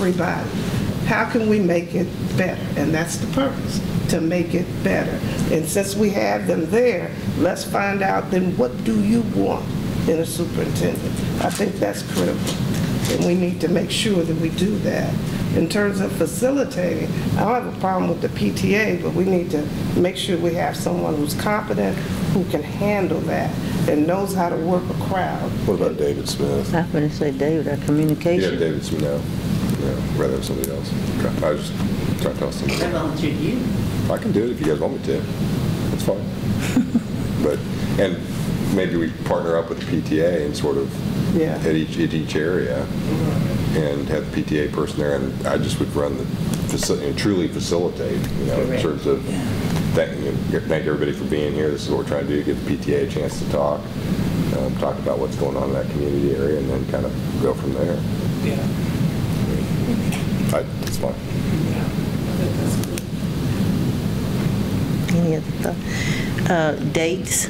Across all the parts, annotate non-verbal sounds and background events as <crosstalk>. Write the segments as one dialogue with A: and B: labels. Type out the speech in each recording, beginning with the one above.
A: everybody. How can we make it better? And that's the purpose, to make it better. And since we have them there, let's find out then what do you want in a superintendent? I think that's critical, and we need to make sure that we do that. In terms of facilitating, I don't have a problem with the PTA, but we need to make sure we have someone who's competent, who can handle that, and knows how to work a crowd.
B: What about David Smith?
C: I'm going to say, David, our
B: You have
C: communication.
B: David Smith now, yeah, rather than somebody else. Okay. I was just trying to tell somebody.
D: I volunteered you.
B: I can do it if you guys want me to. That's fine. But, and maybe we partner up with the PTA and sort of
A: Yeah.
B: at each, at each area and have the PTA person there. And I just would run the, faci- and truly facilitate, you know, in
D: Correct.
B: terms of thanking, thank everybody for being here. This is what we're trying to do, give the PTA a chance to talk, um, talk about what's going on in that community area and then kind of go from there.
D: Yeah.
B: I, that's fine.
C: Any other thought? Uh, Dates?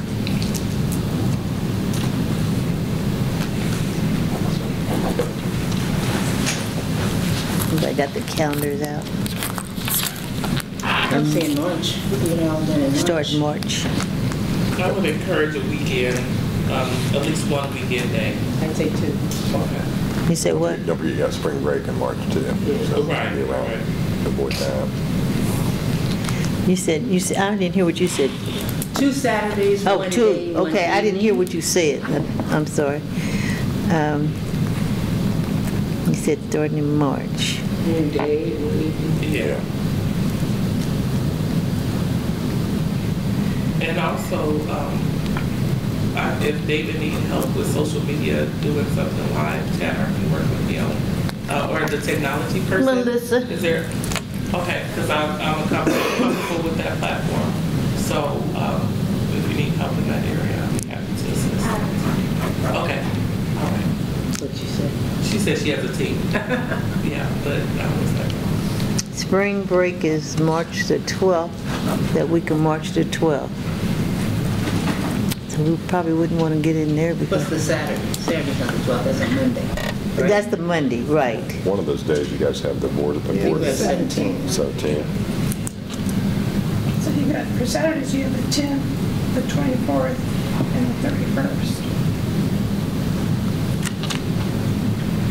C: Everybody got the calendars out?
D: I'm saying lunch. We can get all done at lunch.
C: Um, Start March.
E: I would encourage a weekend, um, at least one weekend day.
D: I'd say two.
C: You said what?
B: Don't forget, you got spring break in March too. so
E: Right,
B: be around.
E: right.
B: Avoid that.
C: You said, you said, I didn't hear what you said.
D: Two Saturdays,
C: Oh,
D: one day,
C: two,
D: one
C: okay, I didn't hear
D: evening.
C: what you said. I'm sorry. Um, You said starting in March.
D: One day, one evening.
E: Yeah. And also, um, I, if David needs help with social media, doing something live, Tanner can work with me on, uh, or the technology person.
C: Melissa.
E: Is there, okay, because I'm, I'm comfortable, comfortable with that platform. So, um, if you need help in that area, I'd be happy to assist. Okay, all right.
D: What you said.
E: She said she has a team. <laughs> Yeah, but I was like,
C: Spring break is March the 12th, that week of March the 12th. So we probably wouldn't want to get in there
D: What's
C: because,
D: the Saturday? Saturday's not the 12th, that's a Monday. right?
C: that's the Monday, right.
B: One of those days, you guys have the board at the
A: Yeah,
B: board
D: we
B: at
D: have 17.
B: 17.
F: So you got, for Saturdays, you have the 10th, the 24th, and the 31st.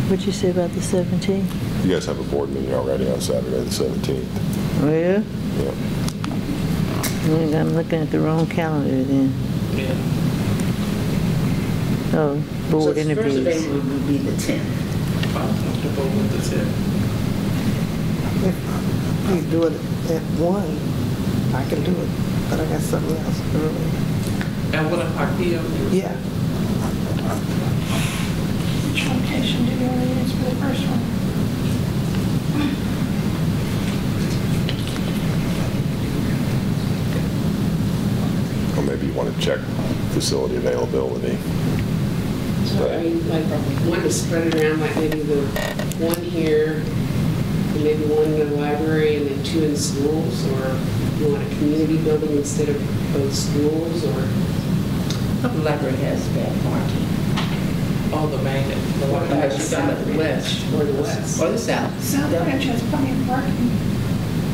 C: What'd you say about the 17th?
B: You guys have a board meeting already on Saturday, the 17th.
C: Well,
B: Yeah.
C: I'm looking at the wrong calendar then.
E: yeah.
C: Oh,
D: So
C: board
D: the first day
C: interviews.
D: would would be the 10th.
E: I'm comfortable with the tip.
A: You do it at one, I can do it, but I got something else early.
E: At one o'clock PM?
A: Yeah,
F: Which location do you want to use for the first one?
B: Or maybe you want to check facility availability.
G: So I mean, like, one to spread it around, like maybe the one here, and maybe one in the library, and then two in schools, or you want a community building instead of both schools, or,
D: The library has bad parking.
E: Oh, the main, the
D: Or
E: one
D: the
E: that
D: west,
E: you
D: or
E: got
D: the west.
G: or the west.
D: Or the south.
F: South
D: Yeah.
F: Branch has plenty of parking,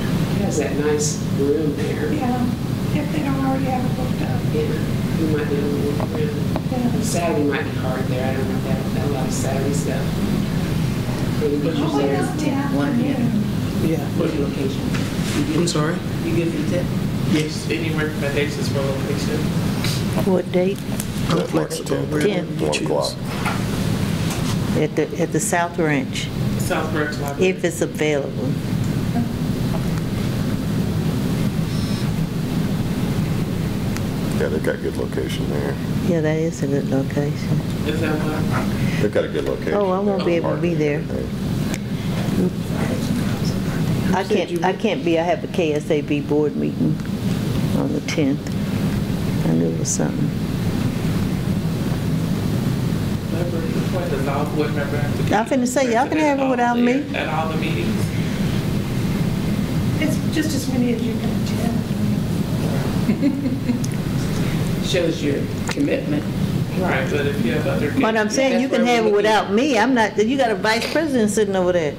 G: It has that nice room there. Uh,
F: yeah, if they don't already have it booked up.
G: Yeah, we might be able to work around.
F: Yeah.
G: Saturday might be hard there, I don't know, that, that lot of Saturday stuff. Maybe put yours
F: Hopefully
G: there.
F: not the
D: One here.
F: afternoon.
A: yeah.
D: What's your location? I'm sorry? You give me 10th?
E: Yes. Any recommendations for location?
C: What date?
B: I'm flexible.
C: 10th.
B: 1 o'clock.
C: At the, at the South Ranch,
E: South Branch Library?
C: if it's available.
B: Yeah, they've got a good location there.
C: Yeah, that is a good location.
E: Is that what?
B: They've got a good location.
C: Oh, I won't
B: there.
C: be able to be there. I can't, I can't be, I have a KSAB board meeting on the 10th. I knew it was something.
E: Library, what does all board member have to?
C: I'm finna say, y'all can have it without me.
E: At all the meetings?
F: It's just as many as you can attend.
D: Shows your commitment.
E: Right, but if you have other.
C: But I'm saying you can have it without me. I'm not, you got a vice president sitting over there.